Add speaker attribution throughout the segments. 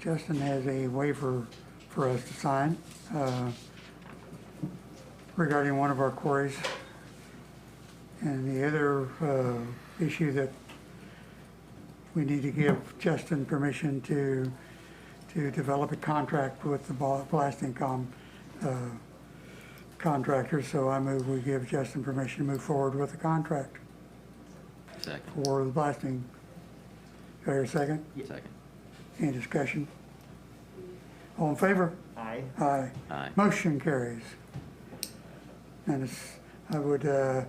Speaker 1: Justin has a waiver for us to sign uh, regarding one of our quarries. And the other uh, issue that we need to give Justin permission to, to develop a contract with the bla- blasting com uh, contractor. So I move we give Justin permission to move forward with the contract
Speaker 2: Second.
Speaker 1: for the blasting. Do I hear a second?
Speaker 2: Second.
Speaker 1: Any discussion? All in favor?
Speaker 3: Aye.
Speaker 1: Aye.
Speaker 2: Aye.
Speaker 1: Motion carries. And it's, I would uh,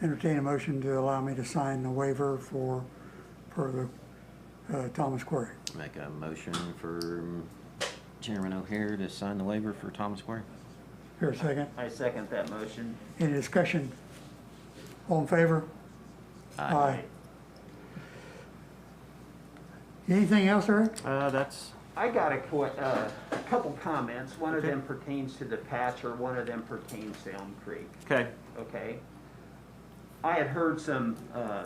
Speaker 1: entertain a motion to allow me to sign the waiver for, for the uh, Thomas Quarry.
Speaker 2: Make a motion for Chairman O'Hare to sign the waiver for Thomas Quarry.
Speaker 1: Here a second.
Speaker 3: I second that motion.
Speaker 1: Any discussion? All in favor? Anything else, Eric?
Speaker 4: Uh, that's,
Speaker 3: I got a qu- uh, a couple comments. One of them pertains to the patch or one of them pertains to Elm Creek,
Speaker 4: okay,
Speaker 3: okay? I had heard some, uh,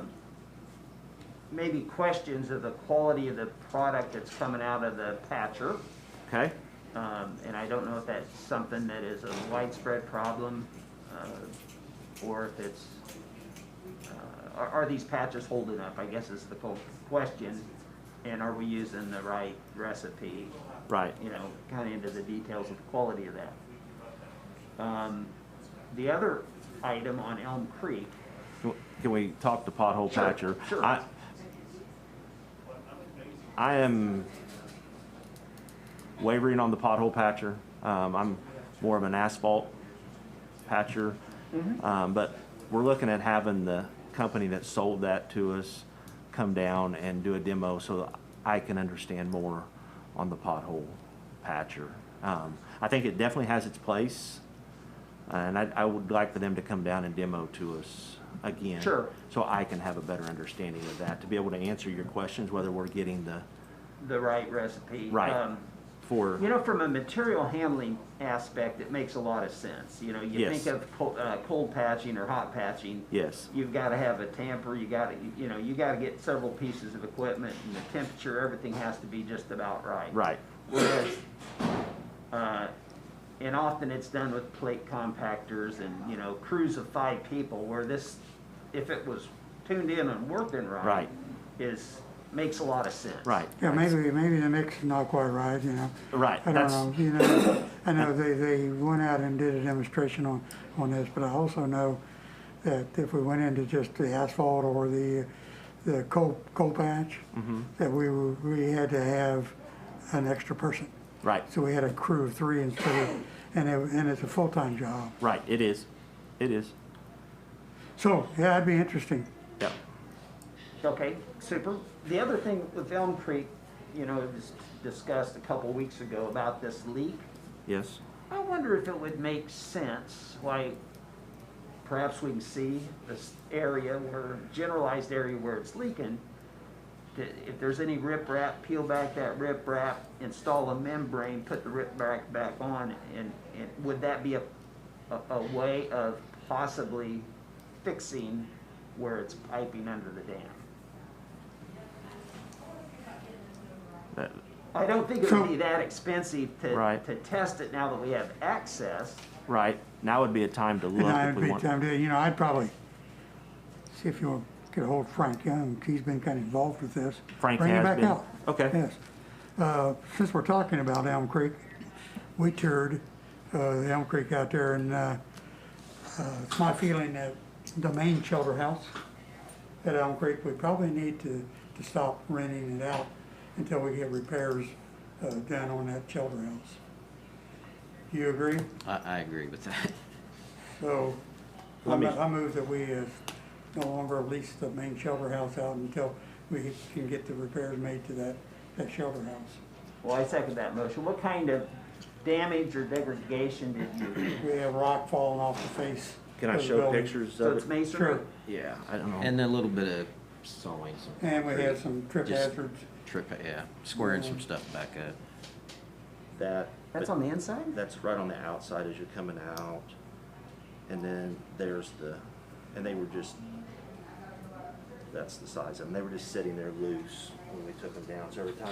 Speaker 3: maybe questions of the quality of the product that's coming out of the patcher.
Speaker 4: okay,
Speaker 3: Um, and I don't know if that's something that is a widespread problem, uh, or if it's, uh, are, are these patches holding up, I guess is the full question. And are we using the right recipe,
Speaker 4: right,
Speaker 3: you know, kinda into the details of the quality of that. Um, the other item on Elm Creek,
Speaker 4: Can we talk to pothole
Speaker 3: Sure,
Speaker 4: patcher?
Speaker 3: sure.
Speaker 4: I- I am wavering on the pothole patcher. Um, I'm more of an asphalt patcher.
Speaker 3: Mm-hmm.
Speaker 4: Um, but we're looking at having the company that sold that to us come down and do a demo so that I can understand more on the pothole patcher. Um, I think it definitely has its place. And I, I would like for them to come down and demo to us again.
Speaker 3: Sure.
Speaker 4: So I can have a better understanding of that, to be able to answer your questions, whether we're getting the,
Speaker 3: the right recipe.
Speaker 4: Right.
Speaker 3: Um,
Speaker 4: for,
Speaker 3: You know, from a material handling aspect, it makes a lot of sense. You know, you
Speaker 4: Yes.
Speaker 3: think of co- uh, cold patching or hot patching.
Speaker 4: yes,
Speaker 3: You've gotta have a tamper, you gotta, you know, you gotta get several pieces of equipment and the temperature, everything has to be just about right.
Speaker 4: right,
Speaker 3: Whereas, uh, and often it's done with plate compactors and, you know, crews of five people where this, if it was tuned in and working right.
Speaker 4: Right.
Speaker 3: Is, makes a lot of sense.
Speaker 4: right.
Speaker 1: Yeah, maybe, maybe the mix is not quite right, you know?
Speaker 4: Right,
Speaker 1: I don't
Speaker 4: that's-
Speaker 1: know, you know, I know they, they went out and did a demonstration on, on this, but I also know that if we went into just the asphalt or the, the coal, coal patch,
Speaker 4: Mm-hmm.
Speaker 1: that we, were- we had to have an extra person.
Speaker 4: Right,
Speaker 1: So we had a crew of three instead of, and it, and it's a full-time job.
Speaker 4: right, it is, it is,
Speaker 1: So, yeah, that'd be interesting.
Speaker 4: yep,
Speaker 3: Okay, super. The other thing with Elm Creek, you know, it was discussed a couple weeks ago about this leak.
Speaker 4: yes,
Speaker 3: I wonder if it would make sense, like, perhaps we can see this area where, generalized area where it's leaking. that If there's any riprap, peel back that riprap, install a membrane, put the riprap back on, and, and would that be a, a, a way of possibly fixing where it's piping under the dam?
Speaker 4: that,
Speaker 3: I don't think it
Speaker 1: So-
Speaker 3: would be that expensive to,
Speaker 4: Right.
Speaker 3: to test it now that we have access.
Speaker 4: right. Now would be a time to
Speaker 1: And
Speaker 4: look if
Speaker 1: I'd
Speaker 4: we
Speaker 1: be,
Speaker 4: want.
Speaker 1: I'm, doing- you know, I'd probably see if you could hold Frank Young, he's been kind of involved with this.
Speaker 4: Frank
Speaker 1: Bring him
Speaker 4: has
Speaker 1: back
Speaker 4: been.
Speaker 1: out.
Speaker 4: Okay.
Speaker 1: Yes. Uh, since we're talking about Elm Creek, we toured, uh, the Elm Creek out there and, uh, uh, it's my feeling that the main shelter house at Elm Creek, we probably need to, to stop renting it out until we get repairs, uh, done on that shelter house. Do you agree?
Speaker 2: I, I agree with that.
Speaker 1: So, I
Speaker 4: Let me-
Speaker 1: mo- I move that we uh, no longer lease the main shelter house out until we can get the repairs made to that, that shelter house.
Speaker 3: Well, I second that motion. What kind of damage or degradation did you,
Speaker 1: We have rock falling off the face.
Speaker 4: Can I
Speaker 1: of the
Speaker 4: show
Speaker 1: building.
Speaker 4: pictures
Speaker 3: so it's
Speaker 4: of it?
Speaker 3: masonry?
Speaker 1: Sure.
Speaker 2: Yeah.
Speaker 4: I don't know.
Speaker 2: And a little bit of sawing. some
Speaker 1: And we had
Speaker 2: concrete,
Speaker 1: some trip
Speaker 2: Just-
Speaker 1: hazards.
Speaker 2: Trip, yeah, squaring some stuff back up.
Speaker 5: That,
Speaker 3: That's
Speaker 5: but
Speaker 3: on the inside?
Speaker 5: that's right on the outside as you're coming out. And then there's the, and they were just, that's the size of them. They were just sitting there loose when we took them down. So every time